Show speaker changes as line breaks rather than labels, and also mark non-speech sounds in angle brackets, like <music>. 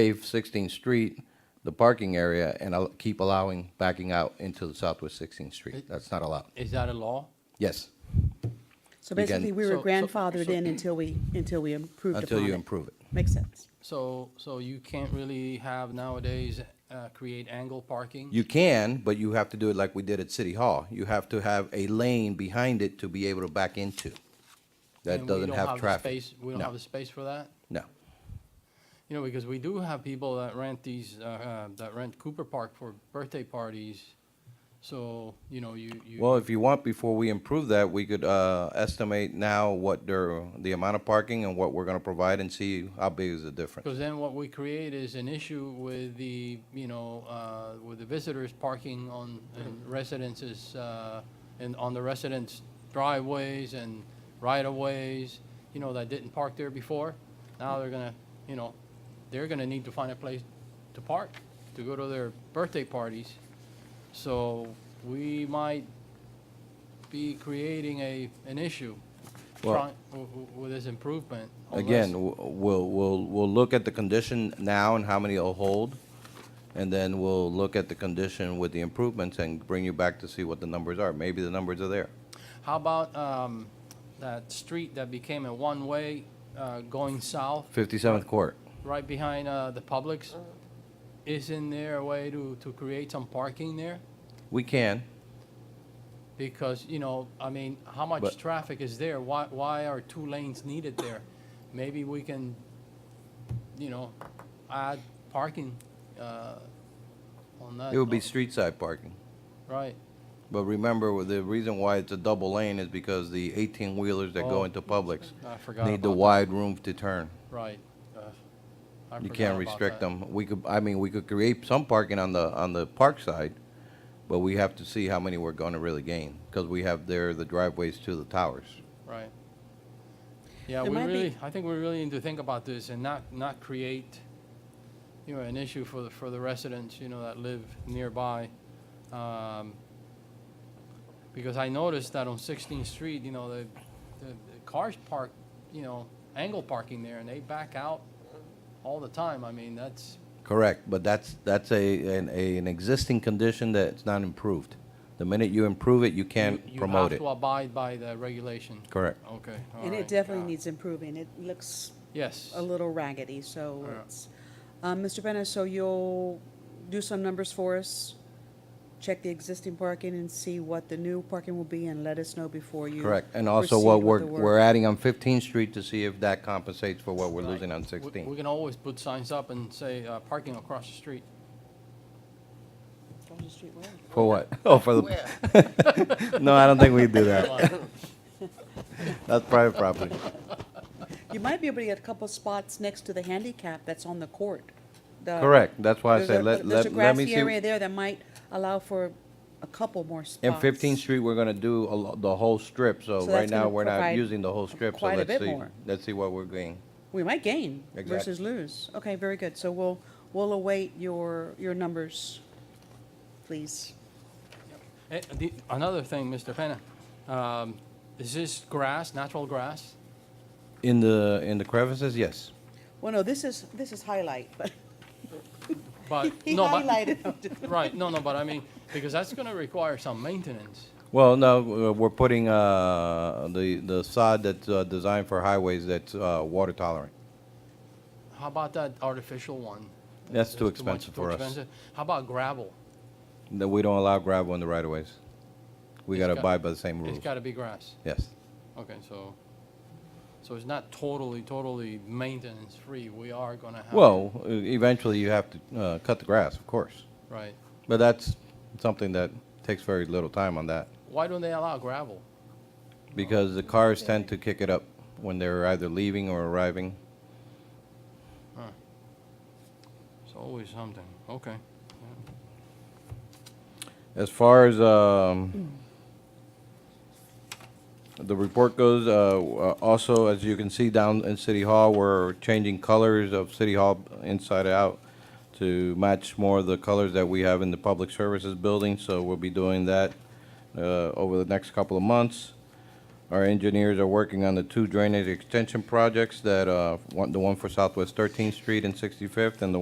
pave 16th Street, the parking area, and I'll keep allowing backing out into the Southwest 16th Street. That's not allowed.
Is that a law?
Yes,
So
Again-
basically, we were
So- so-
grandfathered
so-
in until we, until we improved
until
upon
you
it.
improve it.
Makes sense.
So, so you can't really have nowadays, uh, create angle parking?
You can, but you have to do it like we did at City Hall. You have to have a lane behind it to be able to back into. That
And we
doesn't
don't
have
the
traffic.
space- We don't
No.
have the space for that?
No.
You know, because we do have people that rent these, uh, uh, that rent Cooper Park for birthday parties. So, you know, you, you.
Well, if you want, before we improve that, we could uh, estimate now what their, the amount of parking and what we're going to provide and see how big is the difference.
Because then what we create is an issue with the, you know, uh, with the visitors parking on in
Mm-hmm.
residences, uh, and on the residents' driveways and right-of-ways, you know, that didn't park there before. Now they're gonna, you know, they're gonna need to find a place to park, to go to their birthday parties. So we might be creating a, an issue
Well-
try- w- w- with this improvement. unless-
Again, w- we'll, we'll, we'll look at the condition now and how many it'll hold, and then we'll look at the condition with the improvements and bring you back to see what the numbers are. Maybe the numbers are there.
How about um, that street that became a one-way uh, going south,
57th Court.
right behind uh, the Publix?
Mm-hmm.
Isn't there a way to, to create some parking there?
We can.
Because, you know, I mean, how
But-
much traffic is there? Why, why are two lanes needed there? Maybe we can, you know, add parking uh, on that.
It would be street side parking.
Right.
But remember, the reason why it's a double lane is because the 18-wheelers that go
Oh.
into Publix
I forgot
need the
about that.
wide room to turn.
Right. Uh, I
You
forgot
can't
about
restrict
that.
them. We could, I mean, we could create some parking on the, on the park side, but we have to see how many we're gonna really gain, because we have there the driveways to the towers.
Right. Yeah,
There
we
might be-
really, I think we really need to think about this and not, not create, you know, an issue for the, for the residents, you know, that live nearby. Um, Because I noticed that on Sixteenth Street, you know, the, the the cars park, you know, angle parking there and they back out all the time. I mean, that's,
Correct, but that's, that's a, an, a, an existing condition that's not improved. The minute you improve it, you
you
can't
you
promote
have
it.
to abide by the regulation.
Correct.
Okay, all right.
And it definitely
uh,
needs improving. It looks
Yes.
a little raggedy, so
Yeah.
it's, um, Mr. Bennett, so you'll do some numbers for us? Check the existing parking and see what the new parking will be and let us know before you.
Correct, and also
proceed
what
with
we're,
the
we're
work.
adding on 15th Street to see if that compensates for what we're losing on
We- We
16th.
can always put signs up and say, uh, parking across the street.
Across the street, where?
For what? <laughs> Oh, for the, <laughs> no, I don't think we do
<laughs>
that. That's private property.
You might be able to get a couple spots next to the handicap that's on the court. The-
Correct, that's why I
Uh, there's
said,
a-
let,
There's a
let, let me
grassy
see.
area there that might allow for a couple more spots.
In 15th Street, we're gonna do a lo- the whole strip, so
So
right
that's gonna
now, we're not
provide
using the whole strip, so
quite a
let's
bit
see.
more.
Let's see what we're getting.
We might gain
Exactly.
versus lose. Okay, very good. So we'll, we'll await your, your numbers, please.
Eh, the- Another thing, Mr. Penna, um, is this grass, natural grass?
In the, in the crevices, yes.
Well, no, this is, this is highlight, but <laughs>
But,
he
no, but,
highlighted.
<laughs> right, no, no, but I mean, because that's gonna require some maintenance.
Well, no, uh, we're putting, uh, the, the sod that's, uh, designed for highways that's, uh, water tolerant.
How about that artificial one?
That's too
much-
expensive
too
for us.
expensive. How about gravel?
That we don't allow gravel in the right of ways. We
It's
gotta
got-
abide by the same
It's
rules,
gotta be grass.
yes.
Okay, so, so it's not totally, totally maintenance-free. We are gonna have.
Well, e- eventually you have to, uh, cut the grass, of course.
Right.
But that's something that takes very little time on that.
Why don't they allow gravel?
Because the cars tend to kick it up when they're either leaving or arriving.
It's always something. Okay. yeah.
As far as um, the report goes, uh, uh, also, as you can see down in City Hall, we're changing colors of City Hall inside out to match more of the colors that we have in the Public Services Building, so we'll be doing that uh, over the next couple of months. Our engineers are working on the two drainage extension projects that, uh, one- the one for Southwest 13th Street and 65th, and the